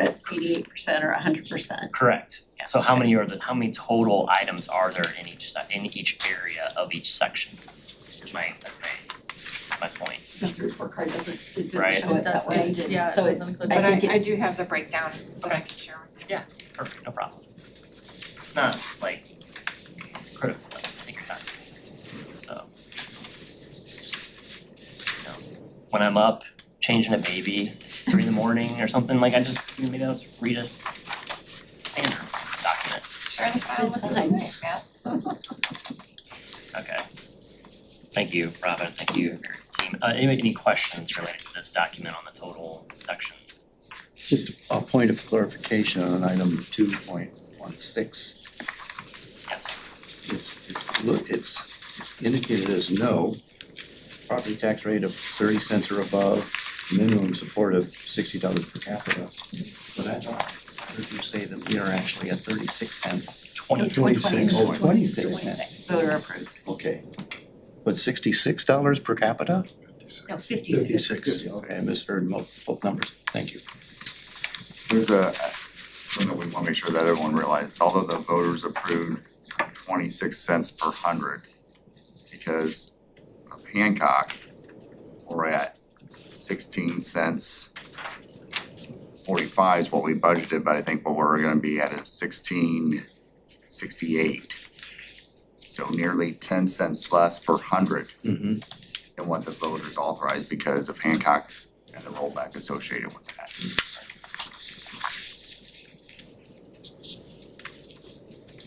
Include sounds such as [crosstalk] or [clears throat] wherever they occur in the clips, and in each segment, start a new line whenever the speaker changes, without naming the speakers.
eighty-eight percent or hundred percent.
Correct.
Yeah.
So how many are the, how many total items are there in each se- in each area of each section? Is my, that's my, that's my point.
The report card doesn't, it
Right.
didn't show it that way.
does, yeah, it
So it-
doesn't include.
But
I think
I
it-
I do have the breakdown, but I can share with you.
Perfect, no problem. It's not like critical, though. take your time. So. just, you know, When I'm up changing a baby three in the morning or something, like I just, maybe I'll just read a standards document.
Share the file with us
Thanks.
tonight, Matt.
Okay. Thank you, Robin, thank you, your team. Uh, any, any questions related to this document on the total section?
Just a point of clarification on item two point one six.
Yes,
It's, it's, look, it's indicated as no. Property tax rate of thirty cents or above, minimum support of sixty dollars per capita. But I thought, I heard you say that we are actually at thirty-six cents.
twenty.
It's like
Twenty-six. Oh, twenty-six cents,
Twenty-six, voter approved.
okay. But sixty-six dollars per capita?
No, fifty-six.
Fifty-six, okay, I misheard both, both numbers, thank you.
There's a, something that we wanna make sure that everyone realizes, although the voters approved twenty-six cents per hundred, because of Hancock, we're at sixteen cents. Forty-five is what we budgeted, but I think what we're gonna be at is sixteen sixty-eight. So nearly ten cents less per hundred
Mm-hmm.
than what the voters authorized because of Hancock and the rollback associated with that.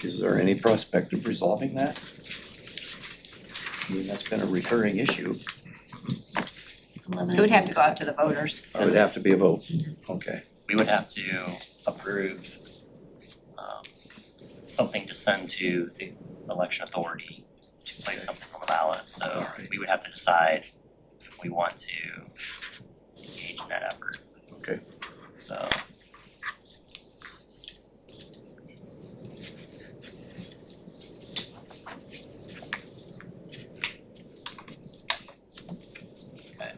Is there any prospect of resolving that? I mean, that's been a recurring issue.
It would have to go out to the voters.
It would have to be a vote. Okay.
We would have to approve um something to send to the election authority to place something on the ballot, so
Alright.
Uh, we would have to decide if we want to engage in that effort,
Okay.
so. Okay.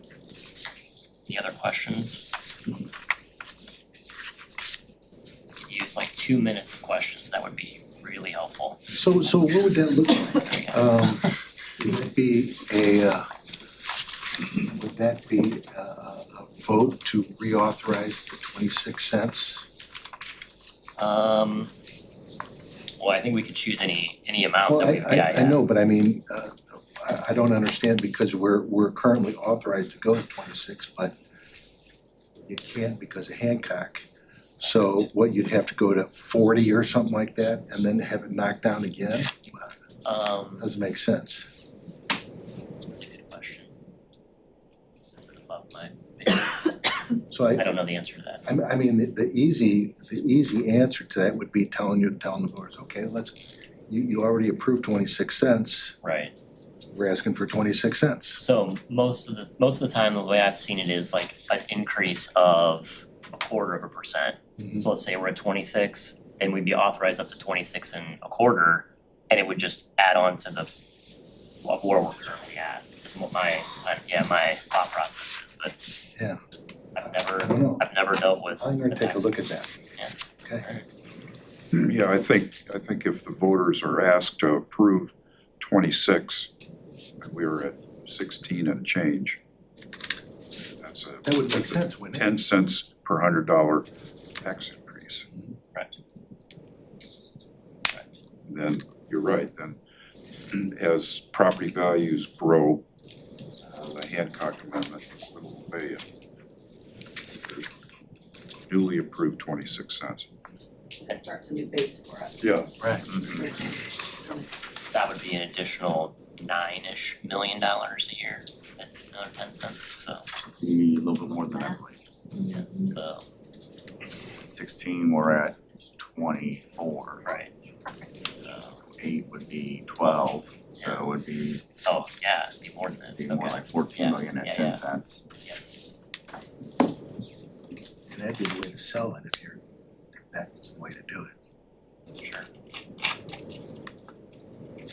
Any other questions? Use like two minutes of questions, that would be really helpful.
So, so what would that look like? Um, Would that be a, uh, would that be a- a a vote to reauthorize the 26 cents?
Um, well, I think we could choose any, any amount
Well,
that
I,
we, yeah,
I- I
yeah.
know, but I mean, uh, I I don't understand because we're, we're currently authorized to go to 26, but you can't because of Hancock. So what, you'd have to go to 40 or something like that and then have it knocked down again?
Um,
Doesn't make sense.
that's a good question. That's above my,
So I,
I don't know the answer to that.
I m- I mean, the the easy, the easy answer to that would be telling you, telling the voters, okay, let's, you, you already approved twenty-six cents,
Right,
we're asking for twenty-six cents.
so most of the, most of the time, the way I've seen it is like an increase of a quarter of a percent.
Mm-hmm.
So let's say we're at twenty-six, then we'd be authorized up to twenty-six and a quarter, and it would just add on to the what where we're currently at, is what my, my- yeah, my thought process is, but
Yeah.
I've never,
I don't know.
I've never dealt with
I'm
the
gonna take a
tax
look at that.
Yeah.
Okay,
[clears throat] Yeah, I think, I think if the voters are asked to approve twenty-six, and we were at sixteen and change, that's a
that would make sense, wouldn't it?
ten cents per hundred dollar tax increase.
Right.
Then, you're right, then, [clears throat] as property values grow, uh, the Hancock Amendment will obey it. Newly approved twenty-six cents.
That starts a new base for us.
Yeah,
Mm-hmm.
that would be an additional nine-ish million dollars a year, another ten cents, so,
Maybe a little bit more than that, believe.
so,
sixteen, we're at twenty-four,
right, so,
so eight would be twelve, so it would be,
oh, yeah, it'd be more than that,
be more
okay,
like fourteen
Yeah,
million
yeah,
at ten
yeah.
cents.
And that'd be the way to sell it if you're, if that's the way to do it.
sure,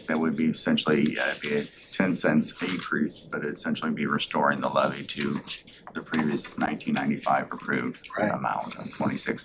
That would be essentially, uh, be a ten cents decrease, but it'd essentially be restoring the levy to the previous nineteen ninety-five approved
Right.
amount of twenty-six